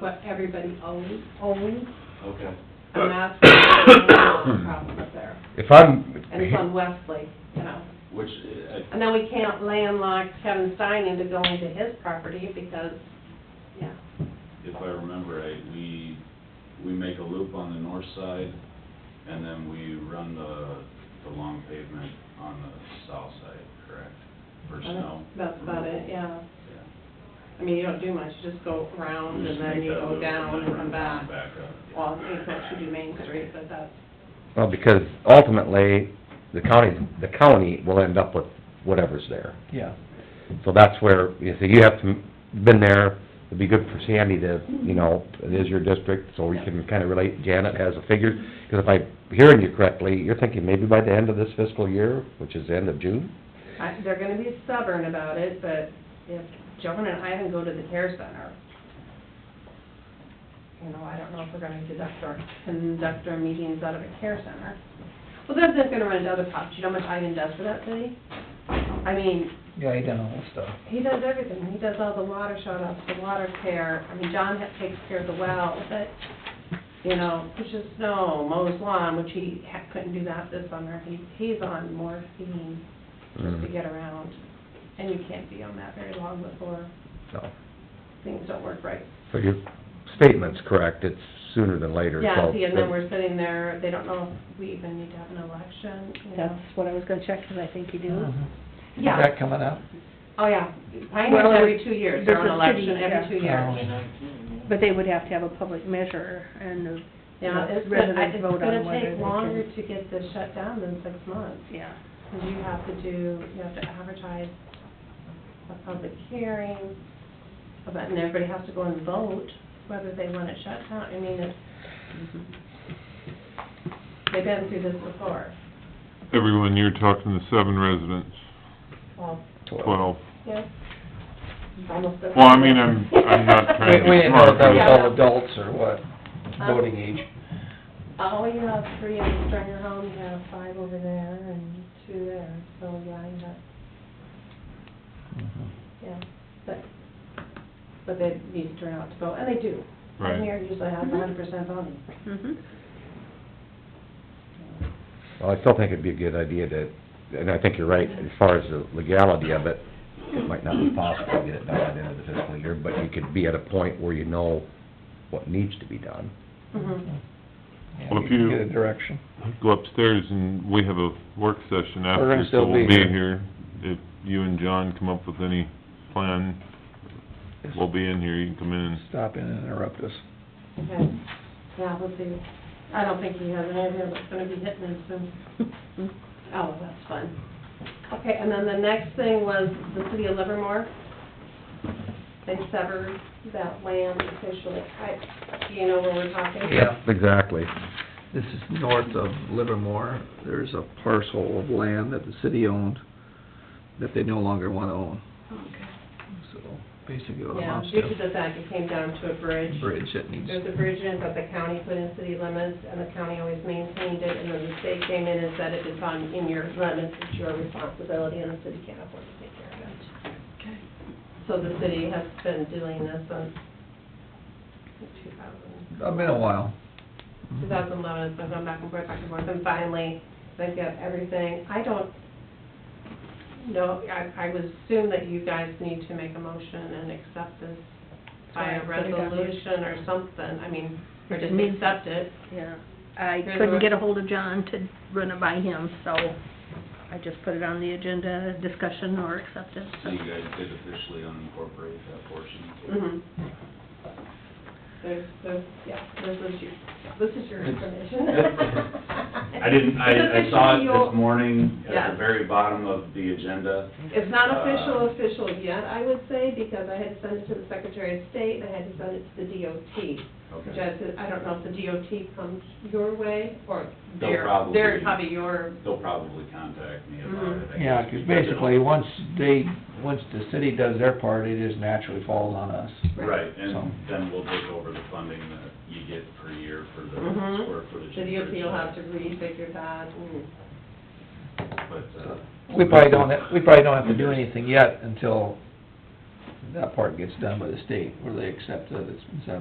what everybody owns, owns, Okay. and that's the problem up there. If I'm, And it's on Wesley, you know. Which, uh, I- And then we can't landlock Kevin Stein into going to his property because, yeah, if I remember right, we, we make a loop on the north side, and then we run the, the long pavement on the south side, correct? For snow? that's about it, yeah. Yeah. I mean, you don't do much, you just go around and We just then make you that go loop down then and run come back. up, yeah. Well, it's actually do Main Street, but that's, well, because ultimately, the county, the county will end up with whatever's there. Yeah. So that's where, you see, you have to, been there, it'd be good for Sandy to, you know, it is your district, so we can kinda relate, Janet has a figure. Cause if I'm hearing you correctly, you're thinking maybe by the end of this fiscal year, which is the end of June? I, they're gonna be stubborn about it, but if Joan and Ivan go to the care center, you know, I don't know if we're gonna conduct our, conduct our meetings out of a care center. Well, that's just gonna run into other costs, you know how much Ivan does for that city? I mean, Yeah, he done all stuff. he does everything, he does all the water shut offs, the water care, I mean, John ha- takes care of the well, but, you know, pushes snow, mows lawn, which he ha- couldn't do that this summer, he, he's on morphine just Mm. to get around, and you can't be on that very long before So, things don't work right. so your statement's correct, it's sooner than later, so. Yeah, see, and then we're sitting there, they don't know if we even need to have an election, you know. That's what I was gonna check, 'cause I think you do. Mm-hmm. Is Yeah. that coming up? Oh, yeah, Pioneer's Well, every two years, they're this on is election, city, every yeah. two years. But they would have to have a public measure and the Yeah, it's, the gonna- residents it's vote on gonna whether they take longer can. to get this shut down than six months, Yeah, because you have to do, you have to advertise a public hearing, about- and everybody has to go and vote whether they want it shut down, I mean, it's, they've been through this before. Everyone, you're talking to seven residents, Well, twelve. yeah. Almost. the- Well, I mean, I'm, I'm not We, trying to we be didn't know if smart, that was but all Oh. adults or what, voting age. Oh, you have three in Stringer Home, you have five over there and two there, so yeah, you have, yeah, but, but they need to turn out to vote, and they do. Right. Here usually has a hundred percent voting. mhm. Well, I still think it'd be a good idea to, and I think you're right, as far as the legality of it, it might not be possible to get it done by the end of the fiscal year, but you could be at a point where you know what needs to be done. Mm-hmm. Mhm. Yeah, Well, if we can you- Get a direction. go upstairs and we have a work session We're gonna after, so still we'll be be here. here. If you and John come up with any plan, we'll be in here, you can come in and Stop in and interrupt us. Okay, yeah, we'll see. I don't think he has an idea what's gonna be hitting him soon. Oh, that's fun. Okay, and then the next thing was the city of Livermore. They severed that land officially. I, do you know where we're talking? Yeah. Exactly. This is north of Livermore. There's a parcel of land that the city owned that they no longer wanna own. Okay. So basically it Yeah, amounts due to to the fact it came down to a a bridge. bridge that needs, There's a bridge in that the county put in city limits, and the county always maintained it, and then the state came in and said, if it's on, in your limits, it's your responsibility, and the city can't afford to take care of it. Okay. So the city has been doing this since two thousand. it's been a while. 2011, it's been going back and forth, back and forth, and finally, they've got everything. I don't know, I, I would assume that you guys need to make a motion and accept this by a Sorry, put it down here. resolution or something, I mean, or just Me. accept it. Yeah, I There's a- couldn't get a hold of John to run it by him, so I just put it on the agenda, discussion or acceptance. So you guys did officially unincorporate that portion? Mm-hmm. There's, there's, yeah, this is your, this is your information. I didn't, I, I saw it It's officially your- this morning at Yeah. the very bottom of the agenda. It's not Uh, official, official yet, I would say, because I had to send it to the Secretary of State, I had to send it to the DOT. Which Okay. I said, I don't know if the DOT comes your way, or They'll they're, probably- they're probably your, They'll probably contact me about Mm-hmm. it. I Yeah, guess, because because it'll- basically, once they, once the city does their part, it just naturally falls on us. Right, So- and then we'll take over the funding that you get per year for the Mhm. square footage. the DOT will have to refigure that, and, But, uh, We probably don't, we probably don't have to do anything yet until that part gets done by the state, where they accept that it's been severed.